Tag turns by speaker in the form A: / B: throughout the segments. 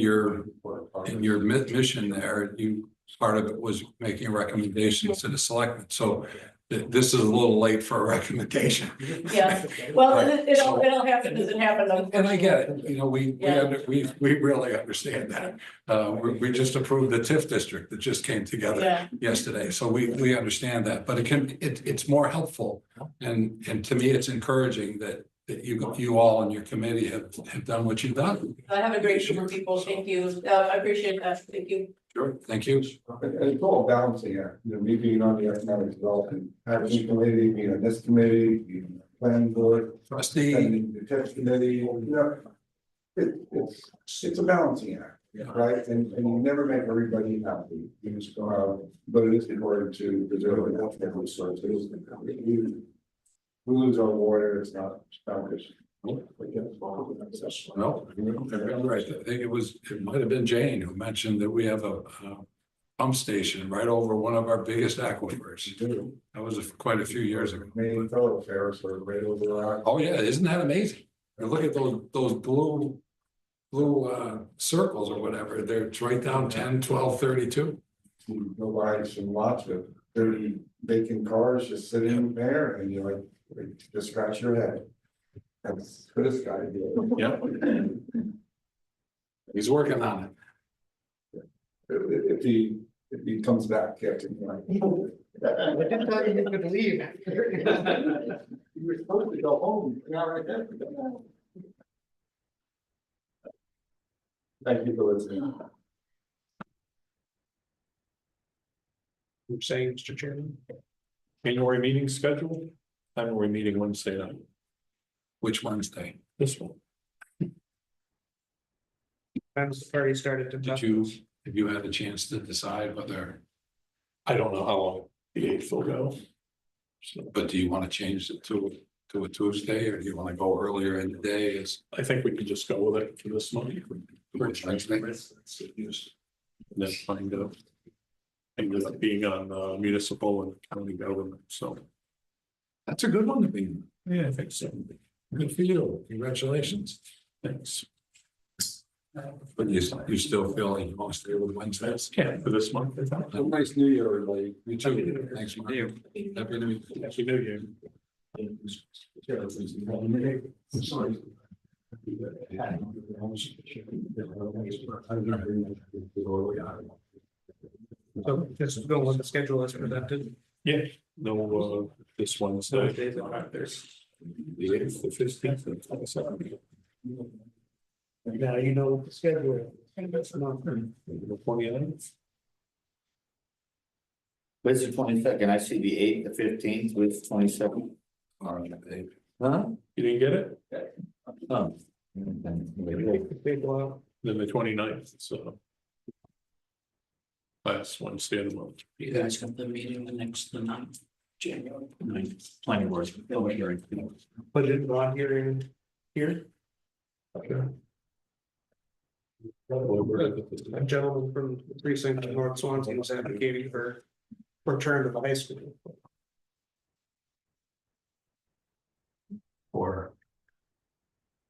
A: your, in your mi- mission there, you, part of it was making recommendations to the selectmen, so th- this is a little late for a recommendation.
B: Yeah. Well, it, it all, it all happens, doesn't happen. on-
A: And I get it, you know, we, we,
B: Yeah.
A: under- we, we really understand that. Uh, we, we just approved the TIF district that just came together
B: Yeah,
A: yesterday, so we, we understand that, but it can, it, it's more helpful. And, and to me, it's encouraging that, that you, you all and your committee have, have done what you've done.
B: I have a great group of people, thank you, uh, I appreciate that, thank you.
A: Sure. Thank you.
C: And and it's all balancing act, you know, me being on the economic development, action committee, being on this committee, being on the planning board,
A: Trustee,
C: and the text committee, you know. It, it's, it's a balancing act,
A: Yeah.
C: right? And, and you never make everybody happy, you just go out, but it is important to preserve the natural resources. You- We lose our water, it's not, it's not good.
A: no, I'm right, I think it was, it might have been Jane who mentioned that we have a, uh pump station right over one of our biggest aquifers. That was quite a few years ago.
C: Main thoroughfare, sort of right over our.
A: Oh, yeah, isn't that amazing? And look at those, those blue, blue, uh, circles or whatever, they're, it's right down 10, 12, 32.
C: you go by some lots with thirty vacant cars just sitting there and you're like, like, just scratch your head. That's what it's gotta do.
A: Yep.
C: If,
A: He's working on it.
C: if if he, if he comes back, Captain, like.
D: I didn't tell you you could leave.
C: You were supposed to go home, you're not right there. Thank you for listening.
E: You're saying, Mr. Chairman? January meeting scheduled, January meeting Wednesday night,
A: Which Wednesday?
E: this one.
D: Times already started to.
A: Did you, have you had a chance to decide whether,
E: I don't know how long the eighth will go. So
A: but do you want to change it to, to a Tuesday or do you want to go earlier in the day is?
E: I think we could just go with it for this month. And then find out. And with it being on uh, municipal and county government, so.
A: That's a good one to be. in.
E: Yeah, I think so.
A: Good for you. Congratulations.
E: Thanks.
A: But you, you still feel like you want to stay with Wednesdays?
E: Yeah, for this month. I thought.
A: Have a nice New Year, everybody. You too. Thanks, Mark. Happy New Year.
E: Happy New Year.
D: So just go with the schedule as presented.
E: Yeah, no, uh, this Wednesday.
D: Thursdays and Fridays.
E: The eighth, the fifteenth, and twenty-seventh.
D: Now you know what the schedule. is.
E: The twenty-ninth.
F: Where's the twenty second? I see the eighth, the fifteenth, where's the twenty second?
A: All right, Dave.
F: Huh?
E: You didn't get it?
F: Oh.
D: Big blow.
E: Then the 29th. so. Last Wednesday of the month.
G: You guys got the meeting the next, the ninth, January ninth, planning board, public hearing.
D: Put it on here and here, a gentleman from the precinct in North Swansea was advocating for return to the high school.
A: Or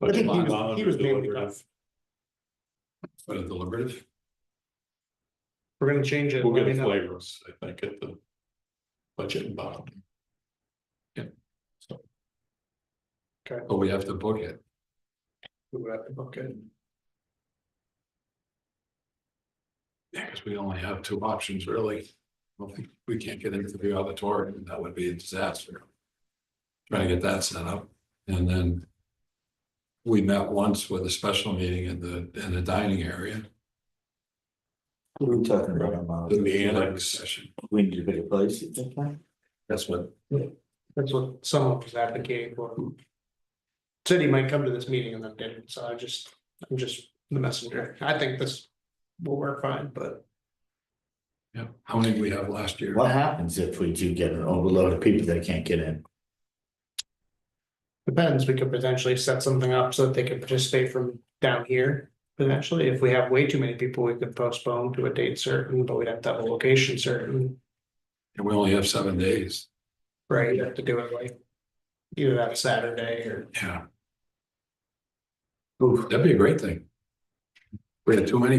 D: I think he was- he was maybe-
A: for the deliberative.
D: We're gonna change it. uh,
E: We'll get
D: let
E: a
D: me know.
E: flavor, I think, at the budget and bottom.
A: But we have to book it.
D: We'll have to book it.
A: Yeah, because we only have two options, really. I don't think we can't get into the auditorium, that would be a disaster. Trying to get that set up, and then. We met once with a special meeting in the, in the dining area,
F: What are we talking about? about?
A: in the annex session,
F: We need a bigger place. you think, huh?
A: that's what,
D: That's what someone was advocating for. Said he might come to this meeting and then didn't, so I just, I'm just the messenger. I think this will work fine, but
A: yeah, how many did we have last year?
F: What happens if we do get an overload of people that can't get in?
D: depends, we could potentially set something up so that they could participate from down here. Potentially, if we have way too many people, we could postpone to a date certain, but we'd have to have a location certain,
A: And we only have seven days,
D: right? You'd have to do it like either that Saturday or
A: yeah,
F: Oof,
A: that'd be a great thing. We had too many